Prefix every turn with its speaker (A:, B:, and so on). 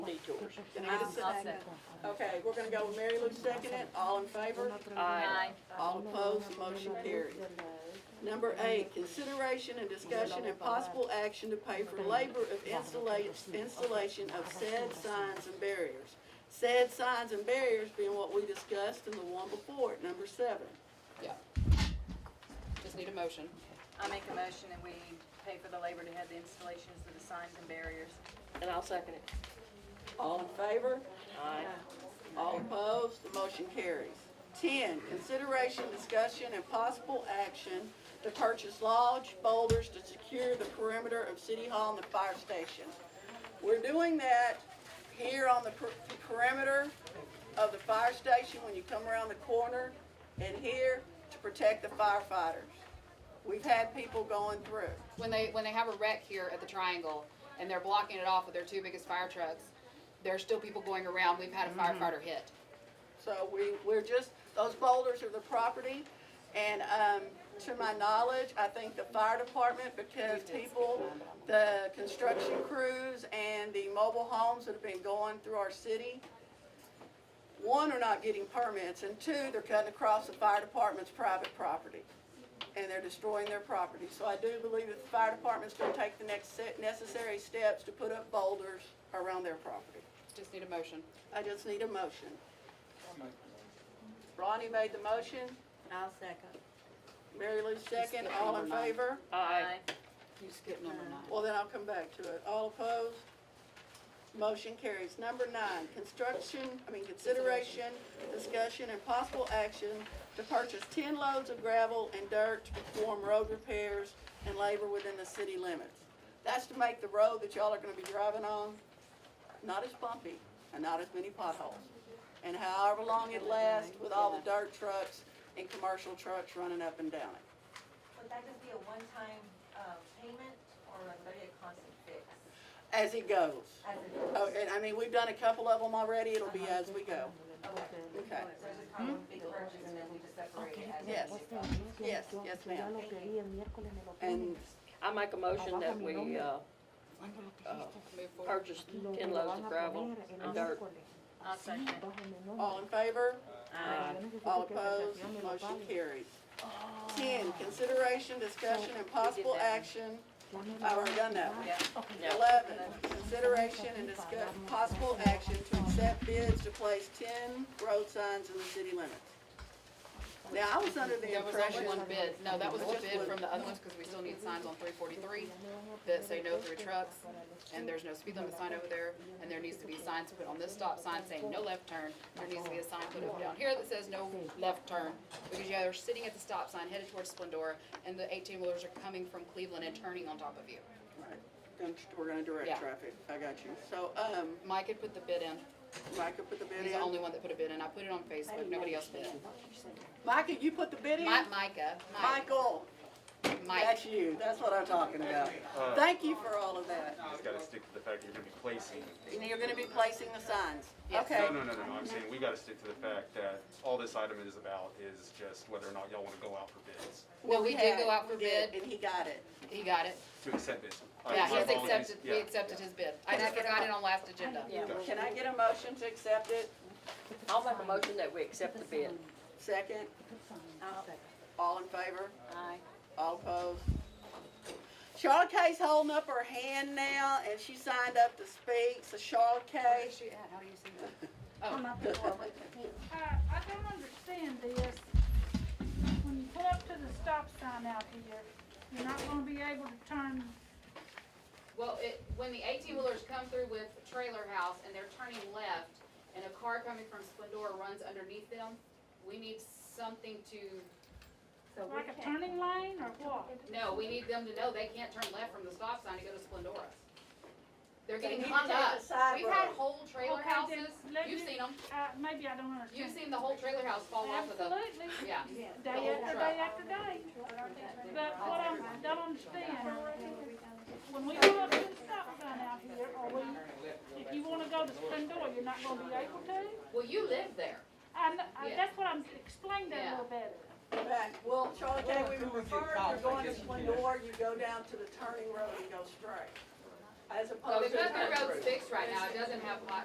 A: motion.
B: Can I get a
A: I'll
B: second?
A: second.
B: Okay, we're gonna go with Mary Lou second it, all in favor?
C: Aye.
B: All opposed, motion carried. Number eight, consideration and discussion and possible action to pay for labor of installa- installation of said signs and barriers. Said signs and barriers being what we discussed in the one before, it, number seven.
D: Yeah. Just need a motion.
C: I make a motion that we pay for the labor to have the installations of the signs and barriers.
A: And I'll second it.
B: All in favor? All opposed, the motion carries. Ten, consideration, discussion, and possible action to purchase large boulders to secure the perimeter of City Hall and the fire station. We're doing that here on the per- perimeter of the fire station when you come around the corner, and here to protect the firefighters. We've had people going through.
D: When they, when they have a wreck here at the triangle and they're blocking it off with their two biggest fire trucks, there are still people going around. We've had a firefighter hit.
B: So we, we're just, those boulders are the property. And, um, to my knowledge, I think the fire department, because people, the construction crews and the mobile homes that have been going through our city, one, are not getting permits, and two, they're cutting across the fire department's private property. And they're destroying their property. So I do believe that the fire department's gonna take the next, se- necessary steps to put up boulders around their property.
D: Just need a motion.
B: I just need a motion. Ronnie made the motion,
A: I'll second.
B: Mary Lou second, all in favor?
C: Aye.
D: You skipped number nine.
B: Well, then I'll come back to it. All opposed? Motion carries. Number nine, construction, I mean, consideration, discussion, and possible action to purchase ten loads of gravel and dirt to perform road repairs and labor within the city limits. That's to make the road that y'all are gonna be driving on not as bumpy and not as many potholes. And however long it lasts with all the dirt trucks and commercial trucks running up and down it.
E: Would that just be a one-time uh, payment or would that be a constant fix?
B: As it goes.
E: As it
B: Oh,
E: goes?
B: and I mean, we've done a couple of them already, it'll be as we go. Okay.
E: oh, So it's just kind of one big purchase and then we just separate it as.
B: Yes.
E: it goes.
B: Yes, yes, ma'am. And
A: I make a motion that we, uh,
D: Move forward.
A: purchase ten loads of gravel and dirt.
C: I'll second it.
B: all in favor?
A: Aye.
B: All opposed? Motion carries. Ten, consideration, discussion, and possible action. I've already done that one.
C: Yeah.
B: Eleven, consideration and discuss, possible action to accept bids to place ten road signs in the city limits. Now, I was under the
D: That was only one
B: impression,
D: bid. No, that was one
B: Just
D: bid
B: one.
D: from the other ones because we still need signs on three forty-three that say no through trucks. And there's no speed limit sign over there. And there needs to be signs put on this stop sign saying no left turn. There needs to be a sign put up down here that says no left turn. Because yeah, they're sitting at the stop sign headed towards Splendora and the eighteen wheelers are coming from Cleveland and turning on top of you.
B: Right. Gonna- we're gonna direct
D: Yeah.
B: traffic, I got you. So, um,
D: Mike had put the bid in.
B: Micah put the bid
D: He's the only
B: in.
D: one that put a bid in. I put it on Facebook. Nobody else bid.
B: Micah, you put the bid in?
D: Mike, Micah, Mike,
B: Michael,
D: Mike.
B: that's you, that's what I'm talking about. Thank you for all of that.
F: Just gotta stick to the fact you're gonna be placing.
B: And you're gonna be placing the signs,
D: Yes.
B: okay?
F: No, no, no, no, no, I'm saying we gotta stick to the fact that all this item is about is just whether or not y'all wanna go out for bids,
D: No,
B: Well,
D: we did
B: had-
D: go out for
B: we did,
D: bid.
B: And he got it.
D: He got it.
F: to accept bids. Uh,
D: Yeah,
F: my
D: he's
F: apologies.
D: accepted, we
F: Yeah,
D: accepted
F: yeah.
D: his bid. I just forgot it on last agenda.
B: Can I get a motion to accept it?
A: I'll make a motion that we accept the bid.
B: Second,
A: I'll second.
B: all in favor?
A: Aye.
B: All opposed? Charlotte Kay's holding up her hand now, and she signed up to speak, so Charlotte
D: Where
B: Kay,
D: is she at? How do you see Oh.
G: Uh, I don't understand this. When you pull up to the stop sign out here, you're not gonna be able to turn,
D: Well, it, when the eighteen wheelers come through with Trailer House and they're turning left and a car coming from Splendora runs underneath them, we need something to,
E: So we
G: like a
E: can't,
G: turning lane or what?
D: no, we need them to know they can't turn left from the stop sign to go to Splendora. They're
B: So
D: getting
B: you
D: hung
B: take the
D: up.
B: side
D: We've had
B: road.
D: whole trailer
G: Okay, then
D: houses,
G: let
D: you've
G: me-
D: seen them,
G: Uh, maybe I don't
D: you've
G: understand.
D: seen the whole trailer house fall off of the,
G: Absolutely,
D: yeah.
G: day after day after day. But what I don't understand, when we pull up to the stop sign out here, or we, if you wanna go to Splendora, you're not gonna be able to?
D: Well, you live there.
G: And, uh,
D: Yeah.
G: that's what I'm, explain that a little better.
B: back, well, Charlotte Kay, we were referring, you're going to Splendor, you go down to the turning road and go straight. As
D: So
B: opposed to.
D: Oh, because the road's fixed right now, it doesn't have